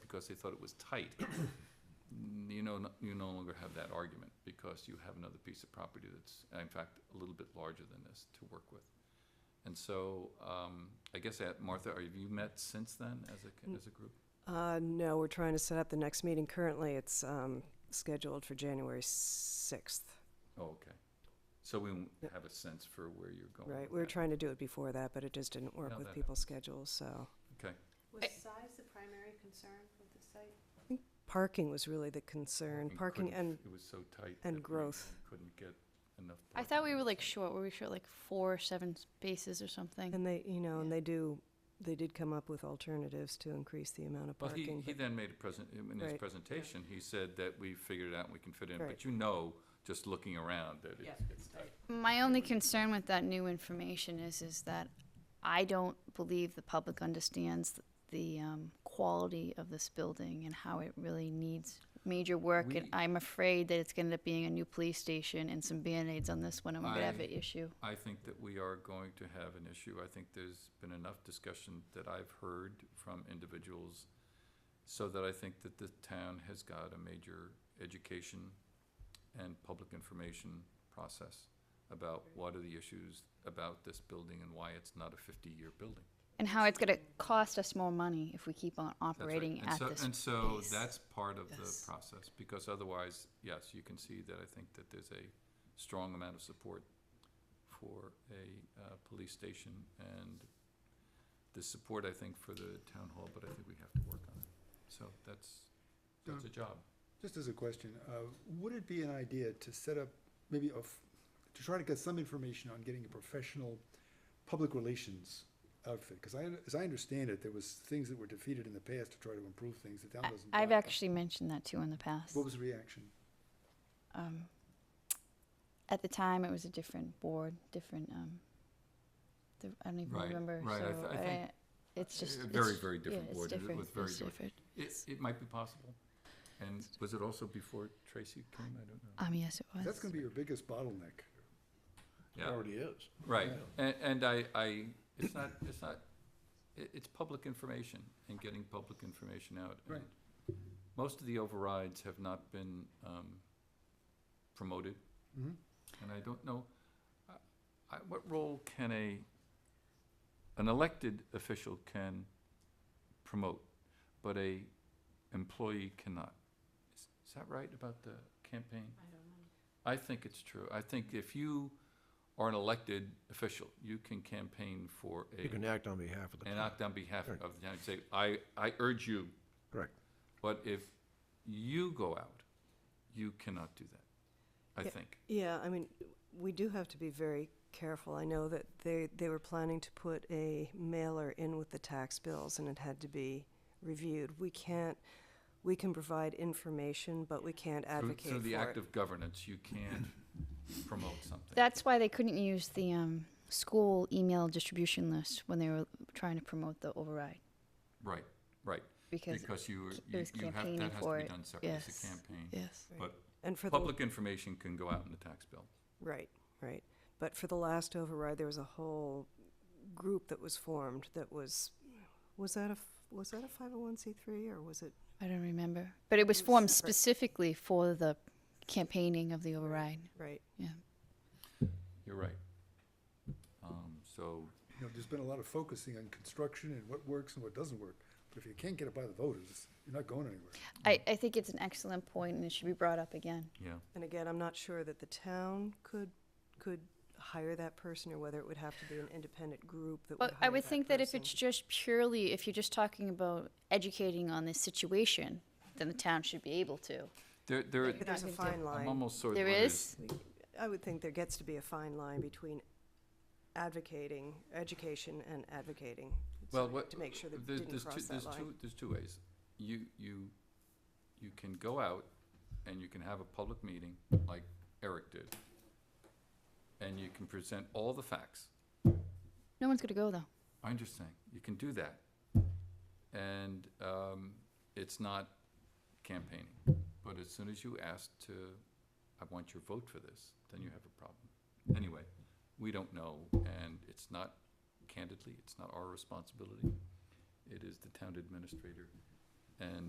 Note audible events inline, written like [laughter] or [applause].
because they thought it was tight. [coughs] N- You know, you no longer have that argument because you have another piece of property that's, in fact, a little bit larger than this to work with. And so, um, I guess, uh, Martha, are- have you met since then as a, Mm. co- as a group? Uh, no, we're trying to set up the next meeting currently. It's, um, scheduled for January sixth, Oh, okay. So we won't have a sense for where you're going right? with We were that. trying to do it before that, but it just didn't Oh, No, work with that people's schedules, so. Okay, Was Eh. size the primary concern with the site? Parking was really the concern, We parking couldn't- and, It was so tight. and that we growth. Couldn't get enough. I thought we parking. were like short. Were we short like four, seven spaces or something? and they, you know, and Yeah. they do, they did come up with alternatives to increase the amount of Well, he, parking. he but- then made a present, in his Right. presentation, he said that we figured it out and we can fit in, Right. but you know, just looking around, that it's, it's tight. My only concern with that new information is is that I don't believe the public understands the um, quality of this building and how it really needs major work. and We- I'm afraid that it's going to end up being a new police station and some band-aids on this one, and we're going to have I- an issue. I think that we are going to have an issue. I think there's been enough discussion that I've heard from individuals so that I think that the town has got a major education and public information process about what are the issues about this building and why it's not a fifty-year building. And how it's going to cost us more money if we keep on That's right. operating And at so- this And so pace. that's part of the Yes. process, because otherwise, yes, you can see that I think that there's a strong amount of support for a uh, police station and the support, I think, for the town hall, but I think we have to work on it. So that's, that's a job. Just as a question, uh, would it be an idea to set up maybe a, f- to try to get some information on getting a professional public relations outfit? Because I, un- as I understand it, there was things that were defeated in the past to try to improve things. The town I- doesn't. I've buy it. actually mentioned that too in the past. What was the reaction? um, at the time it was a different board, different. Um, the, I don't even Right, remember. right, I So uh, th- I think it's just a very, it's- very different yeah, it's board, it Different. was very it's different. It, it might be possible. And was it also before Tracy came? I don't know. Um, yes, it was. That's gonna be your biggest bottleneck. Yeah. is. Right, and, and I, I, it's not, it's not, i it's public information and getting public information out. and Right. Most of the overrides have not been, um, promoted, Mhm. and I don't know, I- I, what role can a, an elected official can promote, but a employee cannot? Is- Is that right about the campaign? I don't know. I think it's true. I think if you are an elected official, you can campaign for a, You can act on behalf of the and town. act on behalf of Right. the town, and say, I, I urge you. Correct. But if you go out, you cannot do that, I Yeah. think. Yeah, I mean, we do have to be very careful. I know that they, they were planning to put a mailer in with the tax bills and it had to be reviewed. We can't, we can provide information, but we can't Through- advocate for Through the act it. of governance, you [clears throat] can't promote something. That's why they couldn't use the um, school email distribution list when they were trying to promote the override Right, right, because because you, were- it you was you have, campaigning that has to for be it, done separately as a yes. campaign. yes, Right. But And for the, public information can go out in the tax bill. right, right. But for the last override, there was a whole group that was formed that was, was that a, f- was that a five oh one C three or was it? I don't remember, but it was It was formed separate. specifically for the campaigning of the override. Right. Yeah. You're right. Um, so You know, there's been a lot of focusing on construction and what works and what doesn't work. But if you can't get it by the voters, you're not going anywhere. I, Mm. I think it's an excellent point and it should be brought up again. Yeah, And again, I'm not sure that the town could, could hire that person or whether it would have to be an independent group that would Well, hire I would think that if person. it's just purely, if you're just talking about educating on this situation, then the town should be able to. there, there, But There's a Not gonna fine I'm line. almost sort of. There worried. is, I would think there gets to be a fine line between advocating, education and advocating. Well, so what- To make sure that There- it didn't there's two- cross that there's line. two- There's two ways. You, you, you can go out and you can have a public meeting like Eric did. And you can present all the facts. no one's gonna go though. I'm just saying, you can do that. And, um, it's not campaigning. But as soon as you ask to, I want your vote for this, then you have a problem. Anyway, we don't know, and it's not, candidly, it's not our responsibility. It is the town administrator and